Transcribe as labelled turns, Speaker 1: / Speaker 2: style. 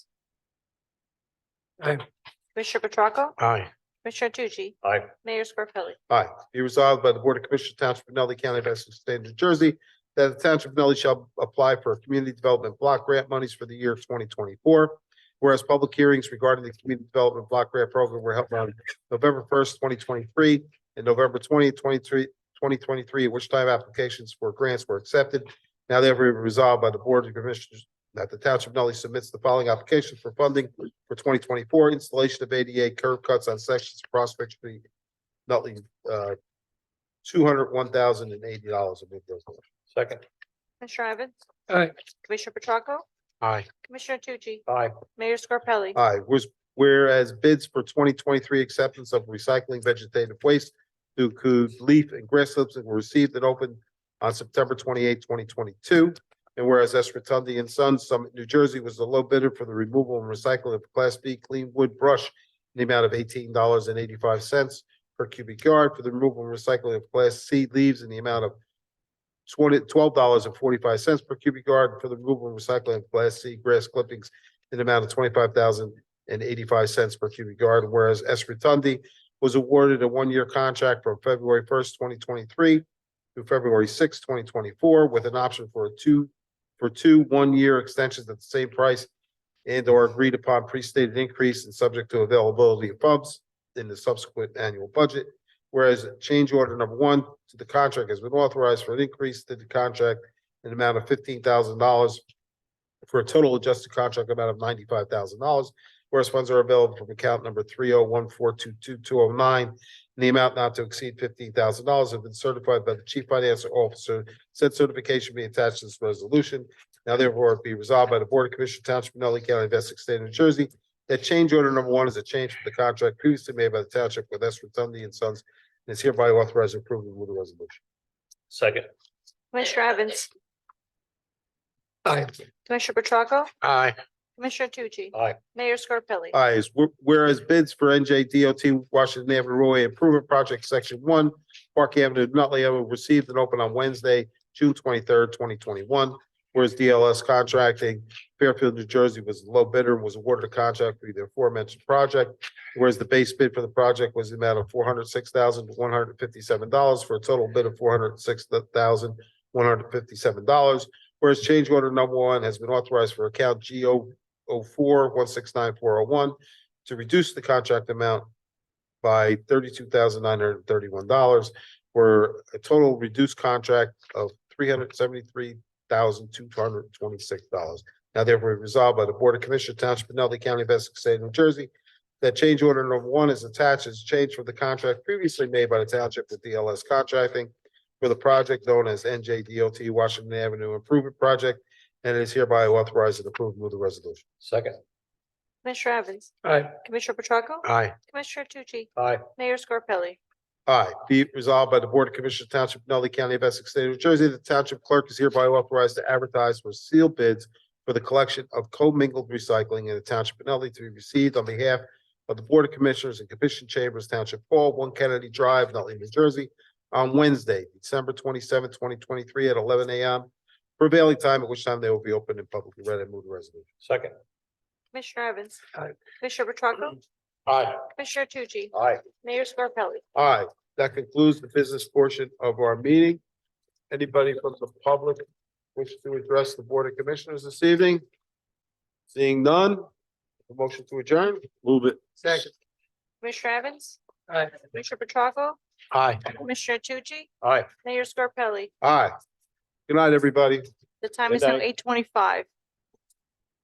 Speaker 1: Aye.
Speaker 2: Commissioner Petracca?
Speaker 1: Aye.
Speaker 2: Commissioner Tucci?
Speaker 1: Aye.
Speaker 2: Mayor Scarpelli?
Speaker 3: Aye. Be resolved by the Board of Commissioners Township of Nutley County of Essex State of New Jersey that the Township of Nutley shall apply for Community Development Block Grant monies for the year twenty twenty-four. Whereas public hearings regarding the Community Development Block Grant Program were held on November first, twenty twenty-three and November 20th, 23 2023, at which time applications for grants were accepted. Now therefore be resolved by the Board of Commissioners that the Township of Nutley submits the following application for funding for twenty twenty-four installation of ADA curb cuts on sections of Prospect Street, Nutley uh, two hundred one thousand and eighty dollars. I move those motions.
Speaker 1: Second.
Speaker 2: Commissioner Evans?
Speaker 1: Aye.
Speaker 2: Commissioner Petracca?
Speaker 1: Aye.
Speaker 2: Commissioner Tucci?
Speaker 1: Aye.
Speaker 2: Mayor Scarpelli?
Speaker 3: Aye, whereas, whereas bids for twenty twenty-three acceptance of recycling vegetative waste to include leaf and grass slips that were received and opened on September 28, twenty twenty-two. And whereas S. Rotundi and Sons Summit, New Jersey was the low bidder for the removal and recycling of Class B clean wood brush in the amount of eighteen dollars and eighty-five cents per cubic yard for the removal and recycling of Class C leaves in the amount of twenty, twelve dollars and forty-five cents per cubic yard for the removal and recycling of Class C grass clippings in the amount of twenty-five thousand and eighty-five cents per cubic yard, whereas S. Rotundi was awarded a one-year contract from February first, twenty twenty-three through February sixth, twenty twenty-four, with an option for a two, for two one-year extensions at the same price and or agreed upon pre-stated increase and subject to availability of funds in the subsequent annual budget. Whereas change order number one to the contract has been authorized for an increase to the contract in the amount of fifteen thousand dollars for a total adjusted contract amount of ninety-five thousand dollars. Whereas funds are available from account number three oh one four two two two oh nine in the amount not to exceed fifteen thousand dollars have been certified by the chief financial officer. Said certification be attached to this resolution. Now therefore be resolved by the Board of Commissioners Township of Nutley County of Essex State of New Jersey that change order number one is a change from the contract previously made by the township with S. Rotundi and Sons and is hereby authorized and approved with the resolution.
Speaker 1: Second.
Speaker 2: Commissioner Evans?
Speaker 1: Aye.
Speaker 2: Commissioner Petracca?
Speaker 1: Aye.
Speaker 2: Commissioner Tucci?
Speaker 1: Aye.
Speaker 2: Mayor Scarpelli?
Speaker 3: Ayes, Wh- whereas bids for NJ DOT Washington Avenue Roadway Improvement Project Section One, Park Avenue, Nutley Avenue, received and opened on Wednesday, June twenty-third, twenty twenty-one. Whereas DLS Contracting Fairfield, New Jersey was the low bidder and was awarded a contract for the aforementioned project. Whereas the base bid for the project was the amount of four hundred six thousand one hundred fifty-seven dollars for a total bid of four hundred six thousand one hundred fifty-seven dollars. Whereas change order number one has been authorized for account GO oh four, one six nine four oh one to reduce the contract amount by thirty-two thousand nine hundred and thirty-one dollars for a total reduced contract of three hundred seventy-three thousand two hundred twenty-six dollars. Now therefore be resolved by the Board of Commissioners Township of Nutley County of Essex State of New Jersey that change order number one is attached as change for the contract previously made by the township with DLS contracting for the project known as NJDOT Washington Avenue Improvement Project and it is hereby authorized and approved. Move the resolution.
Speaker 1: Second.
Speaker 2: Commissioner Evans?
Speaker 1: Aye.
Speaker 2: Commissioner Petracca?
Speaker 1: Aye.
Speaker 2: Commissioner Tucci?
Speaker 1: Aye.
Speaker 2: Mayor Scarpelli?
Speaker 3: Aye. Be it resolved by the Board of Commissioners Township of Nutley County of Essex State of New Jersey, the Township Clerk is hereby authorized to advertise for sealed bids for the collection of commingled recycling in the Township of Nutley to be received on behalf of the Board of Commissioners and Commission Chambers Township Hall, One Kennedy Drive, Nutley, New Jersey, on Wednesday, December twenty-seventh, twenty twenty-three at eleven AM prevailing time, at which time they will be open and publicly read. I move the resolution.
Speaker 1: Second.
Speaker 2: Commissioner Evans?
Speaker 1: Aye.
Speaker 2: Commissioner Petracca?
Speaker 1: Aye.
Speaker 2: Commissioner Tucci?
Speaker 1: Aye.
Speaker 2: Mayor Scarpelli?
Speaker 3: Aye. That concludes the business portion of our meeting. Anybody from the public wish to address the Board of Commissioners this evening? Seeing none, a motion to adjourn? Move it. Second.
Speaker 2: Commissioner Evans?
Speaker 1: Aye.
Speaker 2: Commissioner Petracca?
Speaker 1: Aye.
Speaker 2: Commissioner Tucci?
Speaker 1: Aye.
Speaker 2: Mayor Scarpelli?
Speaker 3: Aye. Good night, everybody.
Speaker 2: The time
Speaker 1: Good
Speaker 2: is now
Speaker 1: night.
Speaker 2: eight twenty-five.